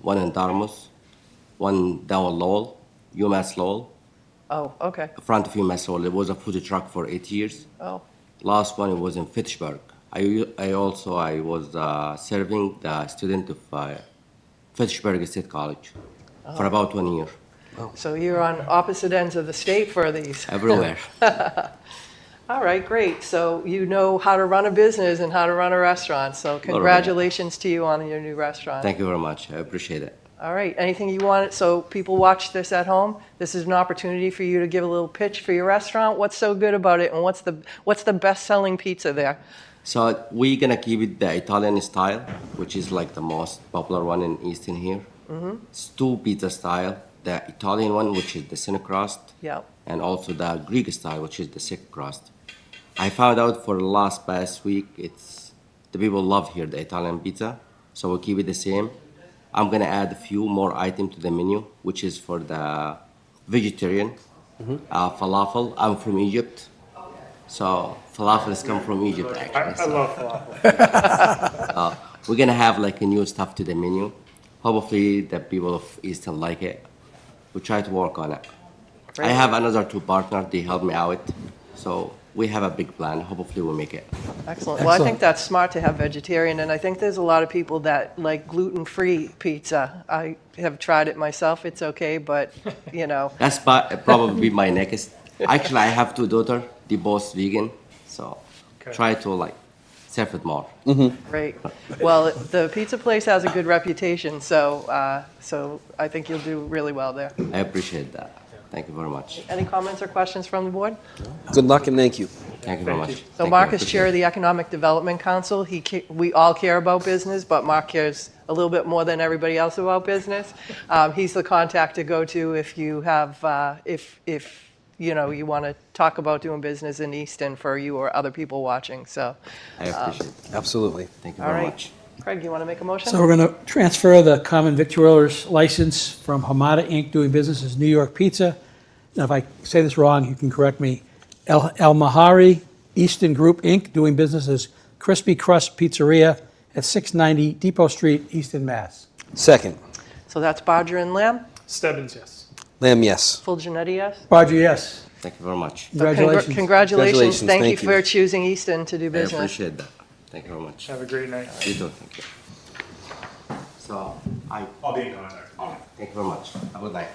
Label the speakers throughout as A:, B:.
A: one in Dartmouth, one down Lowell, UMass Lowell,
B: Oh, okay.
A: in front of UMass Lowell. It was a food truck for eight years.
B: Oh,
A: Last one was in Fitchburg. I, I also I was uh, serving the student of uh, Fitchburg State College for about one year,
B: so you're on opposite ends of the state for these.
A: everywhere.
B: All right, great. So you know how to run a business and how to run a restaurant. So congratulations to you on your new restaurant.
A: Thank you very much. I appreciate it.
B: All right, anything you want, so people watch this at home, this is an opportunity for you to give a little pitch for your restaurant. What's so good about it and what's the, what's the best-selling pizza there?
A: So we're gonna keep it the Italian style, which is like the most popular one in Eastern here. It's two pizza style: the Italian one, which is the thin crust,
B: Yeah,
A: and also the Greek style, which is the thick crust. I found out for the last past week, it's the people love here the Italian pizza, so we'll keep it the same. I'm gonna add a few more items to the menu, which is for the vegetarian uh, falafel. I'm from Egypt, so falafels come from Egypt
C: I,
A: actually.
C: I
A: so-
C: love falafel.
A: we're gonna have like a new stuff to the menu. Hopefully, the people of Easton like it. We try to work on it. I
B: Great.
A: have another two partners. They help me out, so we have a big plan. Hopefully, we make it.
B: excellent. Well, I think
D: Excellent.
B: that's smart to have vegetarian, and I think there's a lot of people that like gluten-free pizza. I have tried it myself, it's okay, but, you know,
A: That's pa- probably my next. Actually, I have two daughters. They both vegan, so try to like serve it more.
B: great. Well, the pizza place has a good reputation, so, uh, so I think you'll do really well there.
A: I appreciate that. Thank you very much.
B: Any comments or questions from the board?
D: Good luck and thank you.
A: Thank you very much.
B: So Mark is chair of the Economic Development Council. He, ca- we all care about business, but Mark cares a little bit more than everybody else about business. Um, He's the contact to go to if you have, uh, if, if, you know, you want to talk about doing business in Easton for you or other people watching, so.
A: I appreciate. it.
D: Absolutely.
A: Thank you
B: uh, All
A: very
B: right.
A: much.
B: Craig, you want to make a motion?
E: So we're going to transfer the common victualler's license from Hamada Inc. doing business as New York Pizza. Now, if I say this wrong, you can correct me. El, El Mahari Easton Group Inc. doing business as Crispy Crust Pizzeria at 690 Depot Street, Easton, Mass.
D: Second.
B: So that's Bodger and Lamb,
C: Stebbins, yes.
D: Lamb, yes.
B: full Genetti, yes?
E: Barger, yes.
A: Thank you very much.
B: So congr-
E: Congratulations.
B: Congratulations.
D: Congratulations,
B: Thank you
D: thank you.
B: for choosing Easton to do
A: I
B: business.
A: appreciate that. Thank you very much.
C: Have a great night.
A: You too. Thank you. So I.
F: I'll be in contact.
A: Thank you very much. I would like.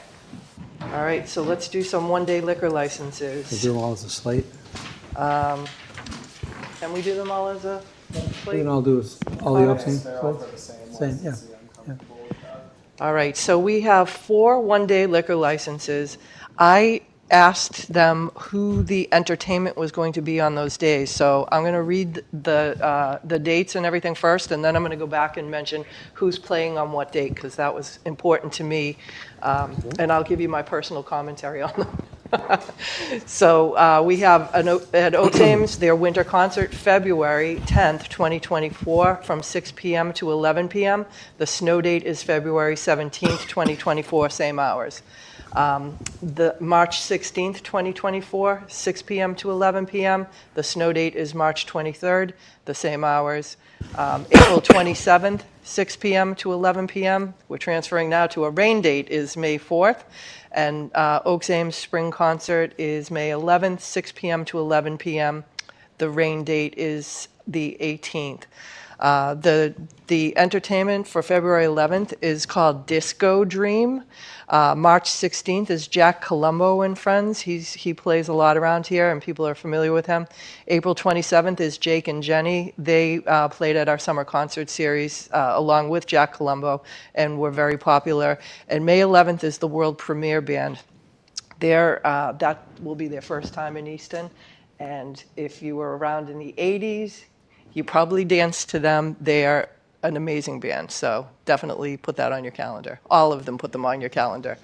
B: All right, so let's do some one-day liquor licenses.
E: Do them all as a slate.
B: Can we do them all as a plate?
E: Then I'll do is all the
B: Alright.
E: options.
F: They're all for the same
E: Same, yeah,
F: license, I'm comfortable with that.
B: All right, so we have four one-day liquor licenses. I asked them who the entertainment was going to be on those days, so I'm going to read the, uh, the dates and everything first, and then I'm going to go back and mention who's playing on what date, because that was important to me, Um, and I'll give you my personal commentary on them. So uh, we have an O- at Otames, their winter concert, February 10th, 2024, from 6 PM to 11 PM. The snow date is February 17th, 2024, same hours. Um, The March 16th, 2024, 6 PM to 11 PM. The snow date is March 23rd, the same hours. Um, April 27th, 6 PM to 11 PM. We're transferring now to a rain date is May 4th. And uh, Oaks Ames Spring Concert is May 11th, 6 PM to 11 PM. The rain date is the 18th. Uh, The, the entertainment for February 11th is called Disco Dream. Uh, March 16th is Jack Colombo and Friends. He's, he plays a lot around here, and people are familiar with him. April 27th is Jake and Jenny. They uh, played at our summer concert series uh, along with Jack Colombo and were very popular. And May 11th is the world premiere band. There, uh, that will be their first time in Easton. And if you were around in the 80s, you probably danced to them. They are an amazing band, so definitely put that on your calendar. All of them put them on your calendar.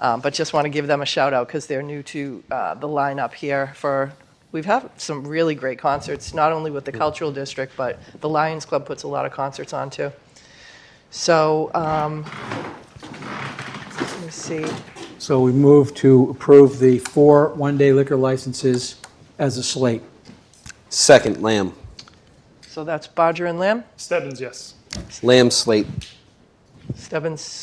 B: Um, but just want to give them a shout out because they're new to uh, the lineup here for. We've had some really great concerts, not only with the cultural district, but the Lions Club puts a lot of concerts on too. So, um, let me see.
E: So we move to approve the four one-day liquor licenses as a slate.
D: Second, lamb.
B: So that's Bodger and Lamb,
C: Stebbins, yes.
D: Lamb, slate.
B: Stebbins